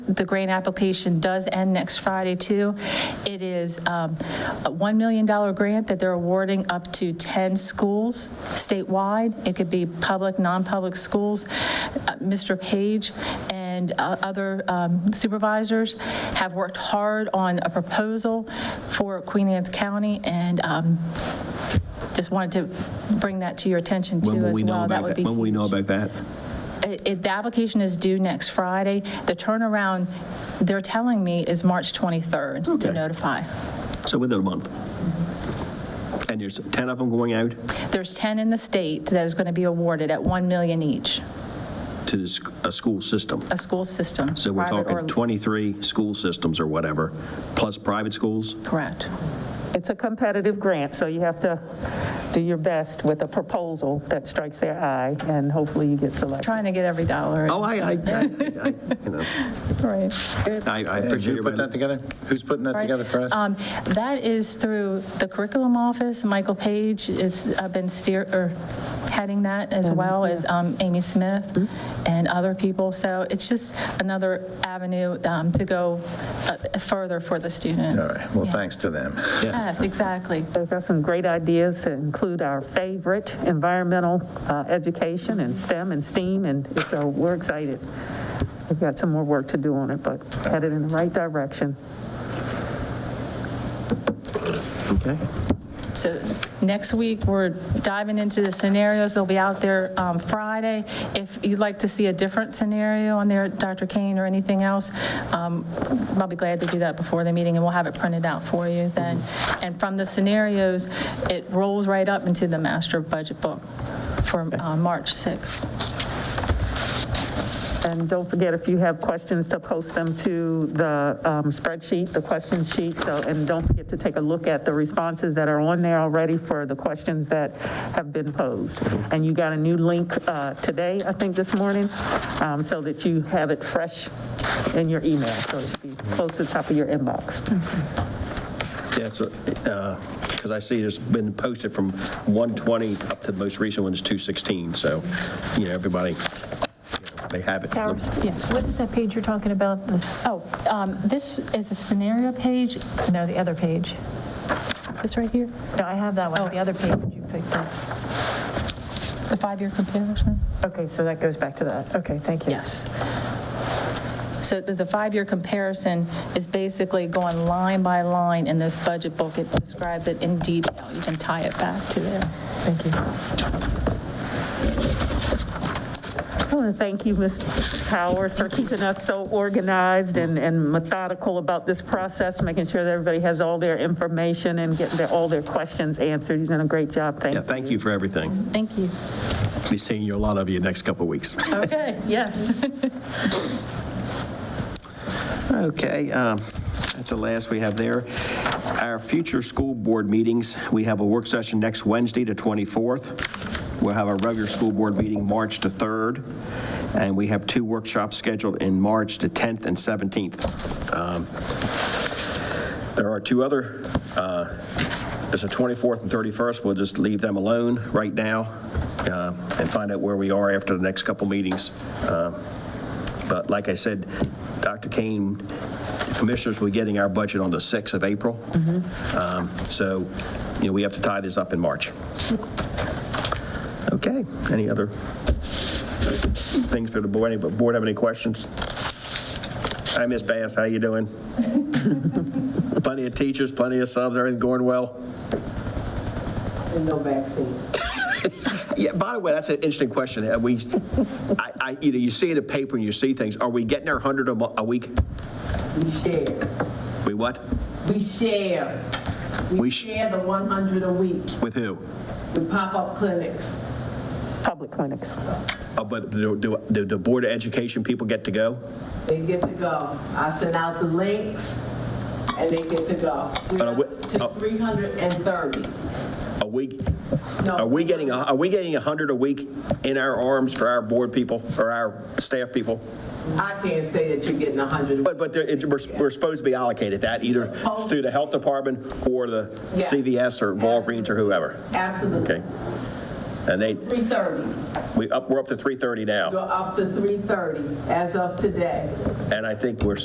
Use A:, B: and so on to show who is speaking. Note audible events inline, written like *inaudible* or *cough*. A: the grant application does end next Friday, too. It is um, a $1 million grant that they're awarding up to 10 schools statewide. It could be public, non-public schools. Uh, Mr. Page and uh, other um, supervisors have worked hard on a proposal for Queen Anne's County, and um, just wanted to bring that to your attention,
B: When
A: too,
B: will
A: as
B: we know
A: well. That
B: about
A: would
B: that?
A: be
B: When will we know
A: huge.
B: about that?
A: It- it- The application is due next Friday. The turnaround, they're telling me, is March 23rd
B: Okay.
A: to notify.
B: So within a month. And there's 10 of them going out
A: There's 10 in the state that is going to be awarded at 1 million each,
B: to the sc- a school system.
A: a school system.
B: So we're
A: private or-
B: talking 23 school systems or whatever, plus private schools?
A: Correct.
C: It's a competitive grant, so you have to do your best with a proposal that strikes their eye, and hopefully you get selected.
A: Trying to get every dollar.
B: Oh, I, I, I, I- you know,
A: Right.
B: I I
D: Did
B: appreciate
D: you put that
B: everybody.
D: together? Who's putting that together for us?
A: Um, That is through the curriculum office. Michael Page has been steer, or heading that as well as um, Amy Smith and other people. So it's just another avenue um, to go uh, further for the students.
D: All right, well,
A: Yeah.
D: thanks to them.
A: Yes, exactly.
C: They've got some great ideas to include our favorite, environmental uh, education and STEM and STEAM, and it's, so we're excited. We've got some more work to do on it, but headed in the right direction.
B: Okay.
A: So next week, we're diving into the scenarios. They'll be out there um, Friday. If you'd like to see a different scenario on there, Dr. Kane or anything else, um, I'll be glad to do that before the meeting, and we'll have it printed out for you then. And from the scenarios, it rolls right up into the master budget book for uh, March 6th.
C: And don't forget, if you have questions, to post them to the um, spreadsheet, the question sheet, so, and don't forget to take a look at the responses that are on there already for the questions that have been posed. And you got a new link uh, today, I think this morning, um, so that you have it fresh in your email, so it should be close to the top of your inbox.
B: Yeah, so, because I see there's been posted from 120 up to the most recent one is 216, so, you know, everybody, you know, they have it.
E: Towers?
A: Yes.
E: What is that page you're talking about? This,
A: Oh, um, this is the scenario page,
E: no, the other page.
A: this right here,
E: No, I have that
A: Oh.
E: one, the other page you picked up.
A: the five-year comparison.
E: Okay, so that goes back to that. Okay, thank you.
A: Yes. So the the five-year comparison is basically going line by line in this budget book. It describes it in detail. You can tie it back to there.
E: Thank you.
C: I want to thank you, Ms. Powers, for keeping us so organized and, and methodical about this process, making sure that everybody has all their information and getting their, all their questions answered. You've done a great job. Thank
B: Yeah,
C: you.
B: thank you for everything.
A: Thank you.
B: Be seeing you, a lot of you, next couple of weeks. *laughs*
A: Okay, yes.
B: Okay, um, that's the last we have there. Our future school board meetings, we have a work session next Wednesday, the 24th. We'll have a regular school board meeting March the 3rd, and we have two workshops scheduled in March, the 10th and 17th. Um, There are two other, uh, there's a 24th and 31st, we'll just leave them alone right now uh, and find out where we are after the next couple meetings. Uh, but like I said, Dr. Kane, commissioners, we're getting our budget on the 6th of April. Um, So, you know, we have to tie this up in March. Okay, any other things for the board? Any board have any questions? Hi, Ms. Bass, how you doing? Plenty of teachers, plenty of subs, everything going well?
F: and no vaccine.
B: Yeah, by the way, that's an interesting question. Have we, I, I, you know, you see in the paper and you see things, are we getting our 100 a mo- a week?
F: We share.
B: We what?
F: We share.
B: We
F: We
B: sh-
F: share the 100 a week
B: With who?
F: with pop-up clinics.
C: Public clinics.
B: Uh, But do, do- do the Board of Education people get to go?
F: They get to go. I send out the links and they get to go. We're
B: Uh,
F: up
B: what-
F: to
B: uh,
F: 330.
B: Are we,
F: No.
B: are we getting, a- are we getting 100 a week in our arms for our board people or our staff people?
F: I can't say that you're getting 100.
B: But, but there- it- we're, we're supposed to be allocated that either through the Health Department or the
F: Yeah.
B: CVS or Walgreens or whoever. Okay.
F: Absolutely.
B: And they,
F: 330.
B: we up, we're up to 330 now.
F: You're up to 330 as of today.
B: And I think we're